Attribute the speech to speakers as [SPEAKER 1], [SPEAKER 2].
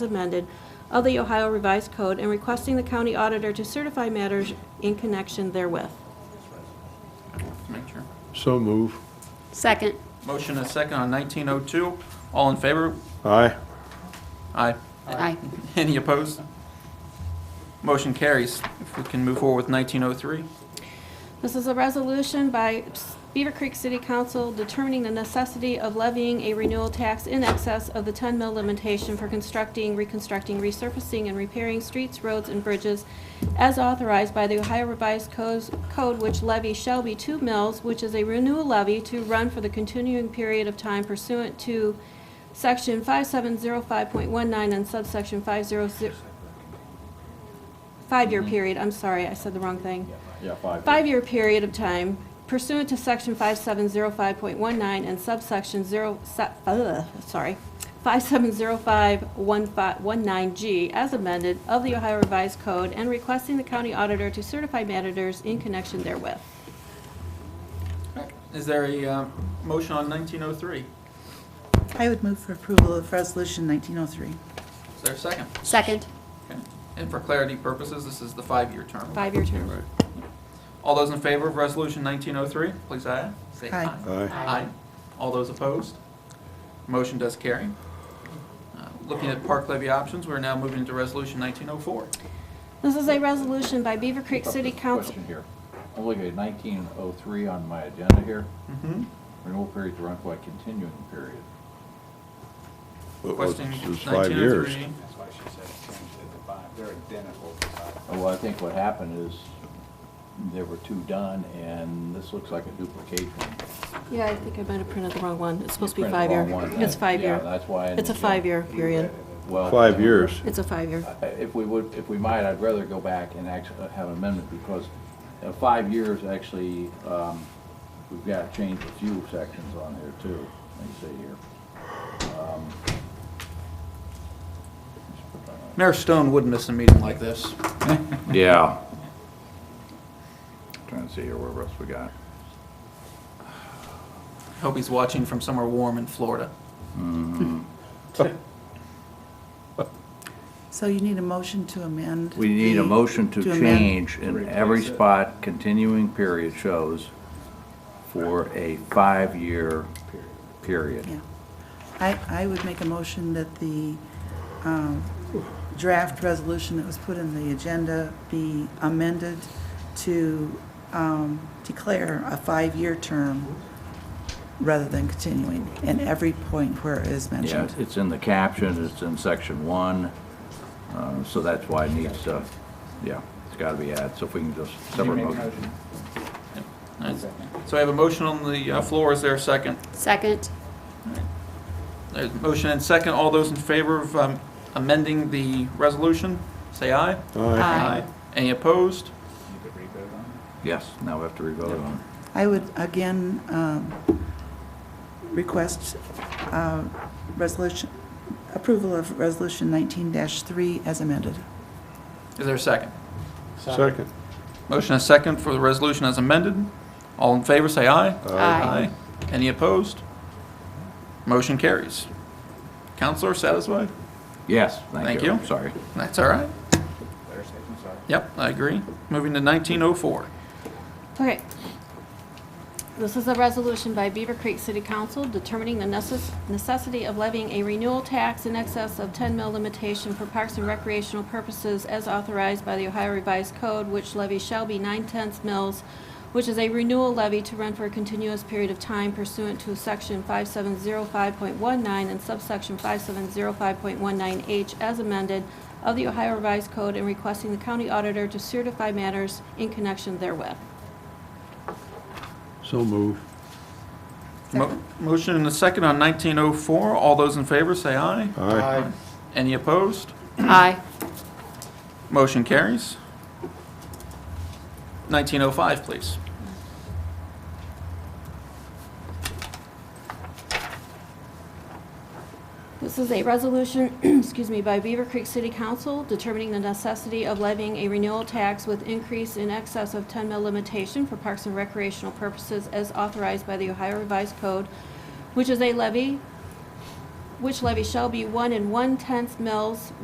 [SPEAKER 1] amended of the Ohio Revised Code and requesting the county auditor to certify matters in connection therewith.
[SPEAKER 2] to make sure.
[SPEAKER 3] So move.
[SPEAKER 4] Second.
[SPEAKER 2] Motion and a second on 1902. All in favor?
[SPEAKER 3] Aye.
[SPEAKER 2] Aye.
[SPEAKER 4] Aye.
[SPEAKER 2] Any opposed? Motion carries. If we can move forward with 1903.
[SPEAKER 1] This is a resolution by Beaver Creek City Council determining the necessity of levying a renewal tax in excess of the 10 mil limitation for constructing, reconstructing, resurfacing, and repairing streets, roads, and bridges as authorized by the Ohio Revised Codes- Code, which levy shall be 2 mils, which is a renewal levy to run for the continuing period of time pursuant to Section 5705.19 and subsection 500, five-year period, I'm sorry, I said the wrong thing
[SPEAKER 5] Yeah, five.
[SPEAKER 1] five-year period of time pursuant to section 5705.19 and subsection 0, se- uh, sorry, 5705.19G as amended of the Ohio Revised Code and requesting the county auditor to certify matters in connection therewith.
[SPEAKER 2] Is there a uh, motion on 1903?
[SPEAKER 6] I would move for approval of Resolution 1903.
[SPEAKER 2] Is there a second?
[SPEAKER 4] Second.
[SPEAKER 2] Okay. And for clarity purposes, this is the five-year term.
[SPEAKER 1] Five-year term.
[SPEAKER 2] All those in favor of Resolution 1903, please aye. Say
[SPEAKER 6] Aye.
[SPEAKER 3] Aye.
[SPEAKER 2] Aye. All those opposed? Motion does carry. Uh, Looking at park levy options, we're now moving to Resolution 1904.
[SPEAKER 1] This is a resolution by Beaver Creek City Council.
[SPEAKER 5] Question here. I'm looking at nineteen oh three on my agenda here.
[SPEAKER 2] Mhm.
[SPEAKER 5] Renewal period to run by continuing period.
[SPEAKER 3] Well,
[SPEAKER 2] Question
[SPEAKER 3] it's- It's five years.
[SPEAKER 2] 1903.
[SPEAKER 7] That's why she said it changed it to five. They're identical to five.
[SPEAKER 5] Uh, Well, I think what happened is there were two done and this looks like a duplication.
[SPEAKER 1] Yeah, I think I might have printed the wrong one. It's supposed to
[SPEAKER 5] You
[SPEAKER 1] be
[SPEAKER 5] printed the
[SPEAKER 1] five-year.
[SPEAKER 5] wrong one.
[SPEAKER 1] It's
[SPEAKER 5] Yeah,
[SPEAKER 1] five-year.
[SPEAKER 5] that's why I
[SPEAKER 1] It's a
[SPEAKER 5] understand.
[SPEAKER 1] five-year period.
[SPEAKER 5] Well,
[SPEAKER 3] Five years.
[SPEAKER 1] It's a five-year.
[SPEAKER 5] I- If we would, if we might, I'd rather go back and actually uh, have an amendment because uh, five years actually, um, we've got to change a few sections on here too, let me see here.
[SPEAKER 2] Mayor Stone would miss a meeting like this.
[SPEAKER 5] Yeah. Trying to see here, where else we got?
[SPEAKER 2] Hope he's watching from somewhere warm in Florida.
[SPEAKER 6] So you need a motion to amend?
[SPEAKER 5] We need a
[SPEAKER 6] the-
[SPEAKER 5] motion to
[SPEAKER 6] amend-
[SPEAKER 5] change in every spot continuing period shows for a five-year period.
[SPEAKER 6] Yeah. I, I would make a motion that the um, draft resolution that was put in the agenda be amended to um, declare a five-year term rather than continuing in every point where it is
[SPEAKER 5] Yeah,
[SPEAKER 6] mentioned.
[SPEAKER 5] it's in the caption, it's in section one, uh, so that's why it needs to, yeah, it's gotta be added, so if we can just separate motion.
[SPEAKER 2] Nice. So I have a motion on the uh, floor. Is there a second?
[SPEAKER 4] Second.
[SPEAKER 2] There's a motion and second. All those in favor of um, amending the resolution, say aye.
[SPEAKER 3] Aye.
[SPEAKER 2] Any opposed?
[SPEAKER 5] Yes, now we have to re-vote on it.
[SPEAKER 6] I would again um, request uh, resolution, approval of Resolution 19-3 as amended.
[SPEAKER 2] Is there a second?
[SPEAKER 3] Second.
[SPEAKER 2] Motion and second for the resolution as amended. All in favor, say aye.
[SPEAKER 4] Aye.
[SPEAKER 2] Any opposed? Motion carries. Counselor, satisfied?
[SPEAKER 5] Yes,
[SPEAKER 2] Thank
[SPEAKER 5] thank you,
[SPEAKER 2] you.
[SPEAKER 5] I'm sorry.
[SPEAKER 2] That's all right. Yep, I agree. Moving to 1904.
[SPEAKER 1] Okay. This is a resolution by Beaver Creek City Council determining the necess- necessity of levying a renewal tax in excess of 10 mil limitation for parks and recreational purposes as authorized by the Ohio Revised Code, which levy shall be 9/10 mils, which is a renewal levy to run for a continuous period of time pursuant to Section 5705.19 and subsection 5705.19H as amended of the Ohio Revised Code and requesting the county auditor to certify matters in connection therewith.
[SPEAKER 3] So move.
[SPEAKER 2] Mo- Motion and a second on 1904. All those in favor, say aye.
[SPEAKER 3] Aye.
[SPEAKER 2] Any opposed?
[SPEAKER 4] Aye.
[SPEAKER 2] Motion carries. 1905, please.
[SPEAKER 1] This is a resolution, excuse me, by Beaver Creek City Council determining the necessity of levying a renewal tax with increase in excess of 10 mil limitation for parks and recreational purposes as authorized by the Ohio Revised Code, which is a levy which levy shall be one and one-tenth mils